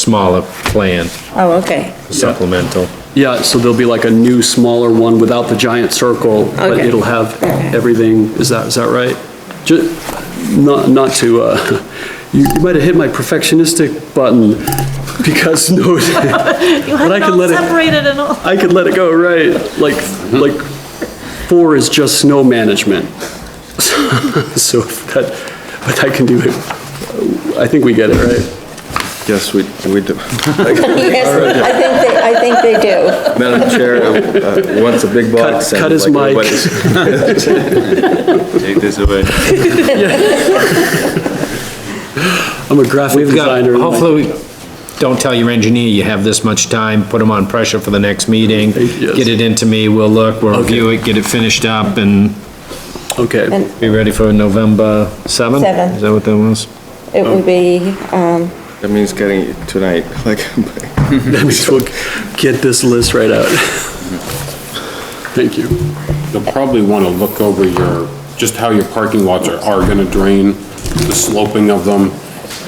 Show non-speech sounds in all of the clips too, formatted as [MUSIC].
smaller plan, Oh, okay. supplemental. Yeah, so there'll be like a new, smaller one without the giant circle, but Okay. it'll have everything, is that, is that right? Ju- Not, not to, uh, [LAUGHS] you you might have hit my perfectionistic button, [LAUGHS] because no, [LAUGHS] You had But I it could all let it- separated and all. I could let it go, right? Like, like, four is just snow management. [LAUGHS] So if that, but I can do it, I think we get it, right? Yes, we, we do. Yes, I think they, I think they do. Madam Chair, uh, once a big box. Cut- cut and his like mic. everybody's- Take this away. [LAUGHS] I'm a graphic We've got, designer. hopefully, we don't tell your engineer you have this much time, put him on pressure for the next meeting. Yes. Get it into me, we'll look, we'll review it, get it finished up and Okay. And [LAUGHS] be ready for November 7th? Seven. Is that what that was? it would be, Oh. um, That means getting it tonight, like, That means we'll get this list [LAUGHS] right out. Thank you. You'll probably want to look over your, just how your parking lots are, are going to drain, the sloping of them.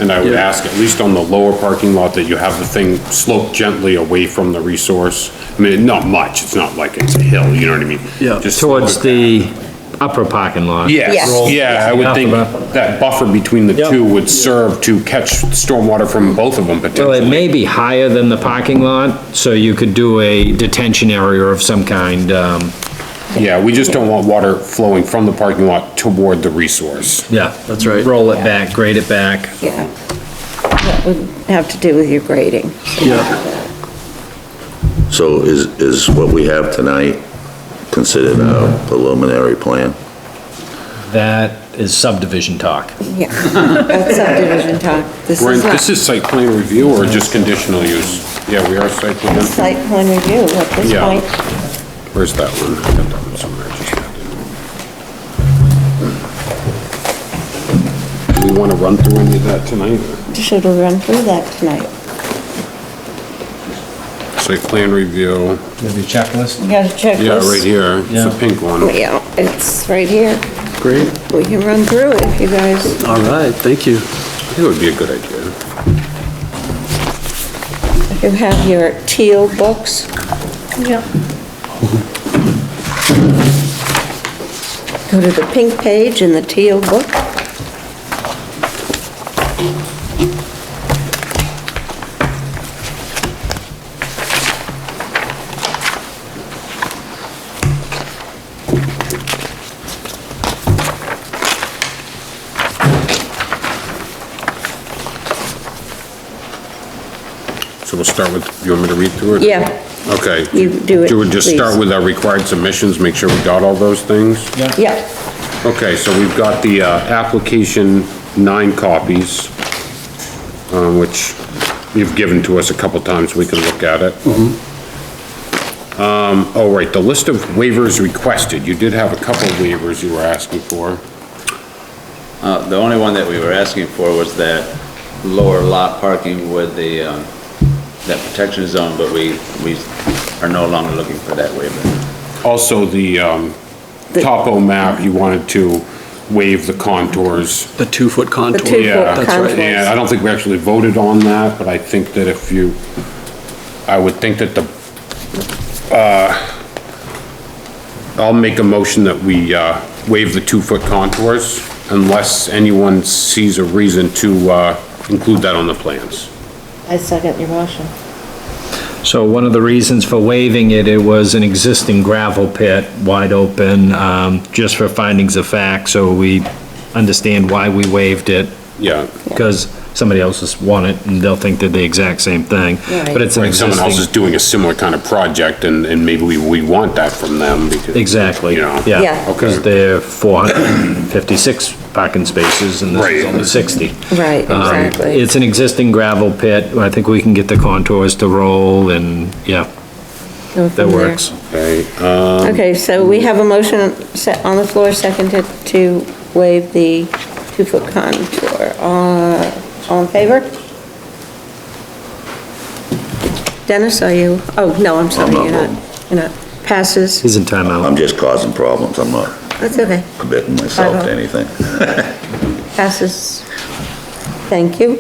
And I would Yeah. ask, at least on the lower parking lot, that you have the thing sloped gently away from the resource. I mean, not much, it's not like it's a hill, you know what I mean? Yeah. Just Towards slope it the upper parking lot. Yes. Yes, yeah, I would think Buffer. that buffer between the Yep. two would serve to catch stormwater from both of them Well, potentially. it may be higher than the parking lot, so you could do a detention area of some kind, um, Yeah, we just don't want water flowing from the parking lot toward the resource. yeah. That's right. Roll it back, grade it back. yeah. That would have to do with your grading. Yeah, So is, is what we have tonight considered a preliminary plan? That is subdivision talk. Yeah, that's subdivision talk. This We're in- is This not is site plan review or just conditional use? Yeah, we are site plan. site plan review at this Yeah. point. Where's that one? I got that one somewhere, I just had it. Do we want to run through any of that tonight? Should have run through that tonight. Site plan review, Maybe checklist? You gotta check yeah, this. right here, it's Yeah. a pink one. Yeah, it's right here. great. We can run through it if you guys, All right, thank you. It would be a good idea. if you have your teal books. Yep. Go to the pink page in the teal book. So we'll start with, you want me to read through it? Yeah. Okay. You do it, Do we just start please. with our required submissions, make sure we got all those things? Yeah. Okay, so we've got the, uh, application, nine copies, um, which you've given to us a couple times, we can look at it. Um, oh, right, the list of waivers requested, you did have a couple waivers you were asking for. Uh, The only one that we were asking for was that lower lot parking with the, um, that protection zone, but we, we are no longer looking for that waiver. Also, the, um, topo map, you wanted to waive the contours. The two-foot contour. two-foot Yeah, That's right. contour. And I don't think we actually voted on that, but I think that if you, I would think that the, uh, I'll make a motion that we, uh, waive the two-foot contours unless anyone sees a reason to, uh, include that on the plans. I second your motion. So one of the reasons for waiving it, it was an existing gravel pit, wide open, um, just for findings of fact, so we understand why we waived it, Yeah. because somebody else has won it, and they'll think they're the exact same thing, but it's an Like someone else is existing. doing a similar kind of project and, and maybe we, we want that from them because. Exactly, You know? yeah, Yeah. because they're 456 parking spaces, and this is Right. only 60. Right, Um, exactly. It's an existing gravel pit, I think we can get the contours to roll, and, yeah, Go that from there. works. Okay, Okay, so we have a motion set on the floor, seconded to waive the two-foot contour. Uh, All in favor? Dennis, are you, oh, no, I'm sorry, I'm not you're not, voting. you're not. Passes, He's in timeout. I'm just causing problems, I'm not that's okay, committing myself to anything. [LAUGHS] passes. Thank you.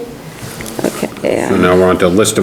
Okay. Yeah. So now we're on to list of